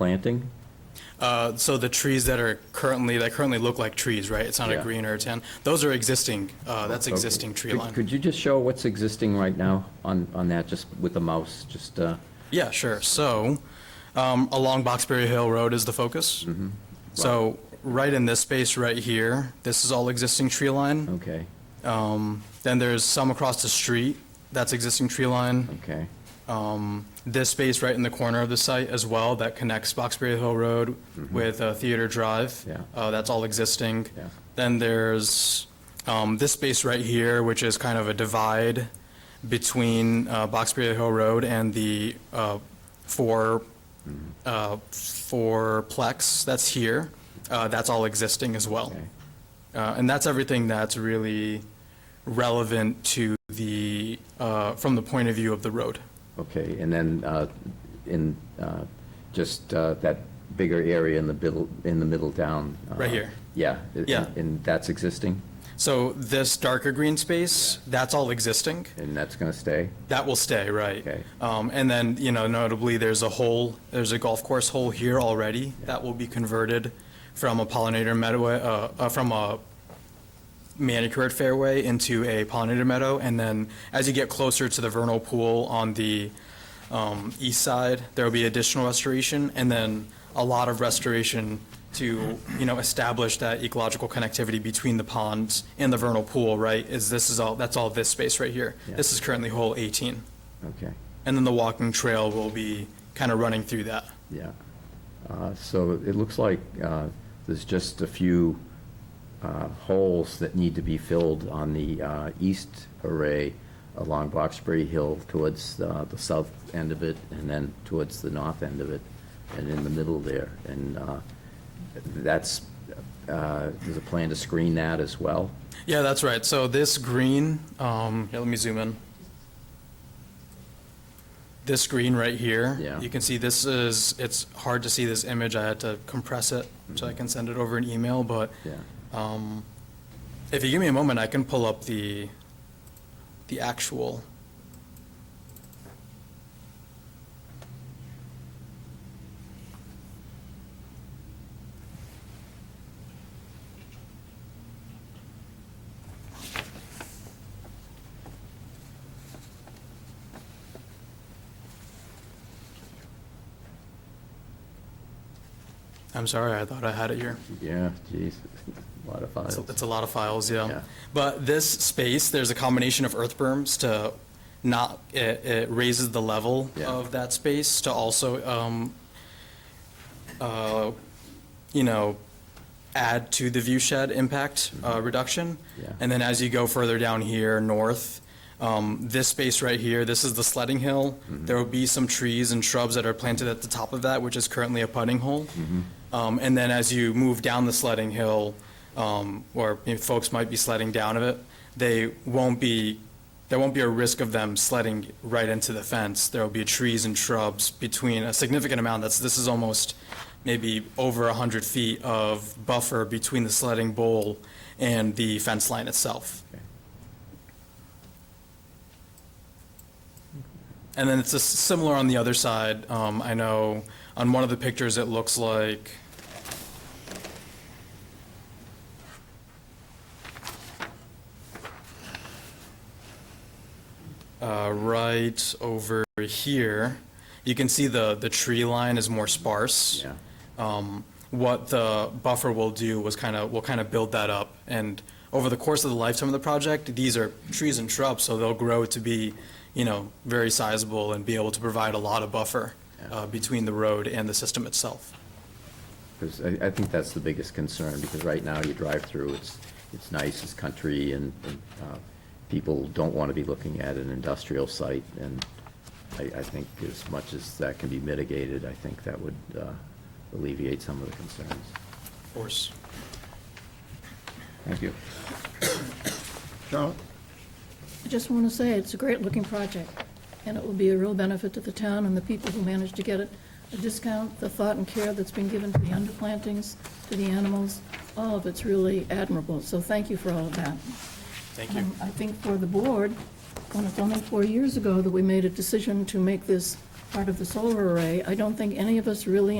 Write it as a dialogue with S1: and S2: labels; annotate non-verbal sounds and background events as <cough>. S1: planting?
S2: Uh, So the trees that are currently, that currently look like trees, right? It's not a
S1: Yeah.
S2: green or a tan. Those are existing, uh, that's existing
S1: Okay.
S2: tree
S1: Could-
S2: line.
S1: Could you just show what's existing right now on, on that, just with the mouse, just, uh,
S2: Yeah, sure. So um, along Boxbury Hill Road is the focus.
S1: Mm-hmm.
S2: So right in this space right here, this is all existing tree line.
S1: okay,
S2: Um, Then there's some across the street, that's existing tree line.
S1: okay,
S2: Um, This space right in the corner of the site as well, that connects Boxbury Hill Road with uh, Theater Drive.
S1: Mm-hmm. Yeah.
S2: uh, That's all existing.
S1: Yeah.
S2: Then there's um, this space right here, which is kind of a divide between uh, Boxbury Hill Road and the uh, four,
S1: Mm-hmm.
S2: uh, fourplex that's here. Uh, That's all existing as well.
S1: okay.
S2: Uh, And that's everything that's really relevant to the, uh, from the point of view of the road.
S1: Okay, and then uh, in, uh, just uh, that bigger area in the middle, in the middle down. uh,
S2: Right here.
S1: Yeah. and-
S2: Yeah.
S1: And that's existing,
S2: So this darker green space, that's all existing.
S1: and that's going to stay?
S2: That will stay, right.
S1: Okay.
S2: Um, And then, you know, notably, there's a hole, there's a golf course hole here already that will be converted from a pollinator meadow, uh, uh, from a manicured fairway into a pollinator meadow. And then as you get closer to the vernal pool on the um, east side, there will be additional restoration and then a lot of restoration to, you know, establish that ecological connectivity between the ponds and the vernal pool, right? Is this is all, that's all this space right here.
S1: Yeah.
S2: This is currently hole 18.
S1: Okay,
S2: And then the walking trail will be kind of running through that.
S1: yeah. Uh, So it looks like uh, there's just a few uh, holes that need to be filled on the uh, east array along Boxbury Hill towards uh, the south end of it, and then towards the north end of it, and in the middle there. And uh, that's, uh, there's a plan to screen that as well?
S2: Yeah, that's right. So this green, um, here, let me zoom in. This green right here.
S1: Yeah.
S2: You can see this is, it's hard to see this image. I had to compress it so I can send it over an email, but
S1: Yeah.
S2: um, if you give me a moment, I can pull up the, the actual. I'm sorry, I thought I had it here.
S1: Yeah, geez, <laughs> a lot of
S2: It's
S1: files.
S2: it's a lot of files,
S1: Yeah.
S2: yeah. But this space, there's a combination of earth berms to not, it, it raises the level
S1: Yeah.
S2: of that space to also, um, uh, you know, add to the view shed impact, uh, reduction.
S1: Yeah.
S2: And then as you go further down here, north, um, this space right here, this is the sledding hill. There will be some trees and shrubs that are planted at the top of that, which is currently a putting hole. Um, and then as you move down the sledding hill, um, or you know, folks might be sledding down of it, they won't be, there won't be a risk of them sledding right into the fence. There will be trees and shrubs between a significant amount. That's, this is almost maybe over 100 feet of buffer between the sledding bowl and the fence line itself.
S1: Okay.
S2: And then it's a s- similar on the other side. Um, I know on one of the pictures, it looks like, uh, right over here, you can see the, the tree line is more sparse.
S1: Yeah.
S2: Um, What the buffer will do was kind of, will kind of build that up. And over the course of the lifetime of the project, these are trees and shrubs, so they'll grow to be, you know, very sizable and be able to provide a lot of buffer
S1: Yeah.
S2: uh, between the road and the system itself.
S1: Because I, I think that's the biggest concern, because right now you drive through, it's, it's nice, it's country, and, and, uh, people don't want to be looking at an industrial site, and I, I think as much as that can be mitigated, I think that would uh, alleviate some of the concerns.
S2: Of course.
S1: Thank you.
S3: Charlotte?
S4: I just want to say, it's a great-looking project, and it will be a real benefit to the town and the people who manage to get it. A discount, the thought and care that's been given to the underplantings, to the animals, all of it's really admirable, so thank you for all of that.
S2: Thank you.
S4: Um, I think for the board, when it's only four years ago that we made a decision to make this part of the solar array, I don't think any of us really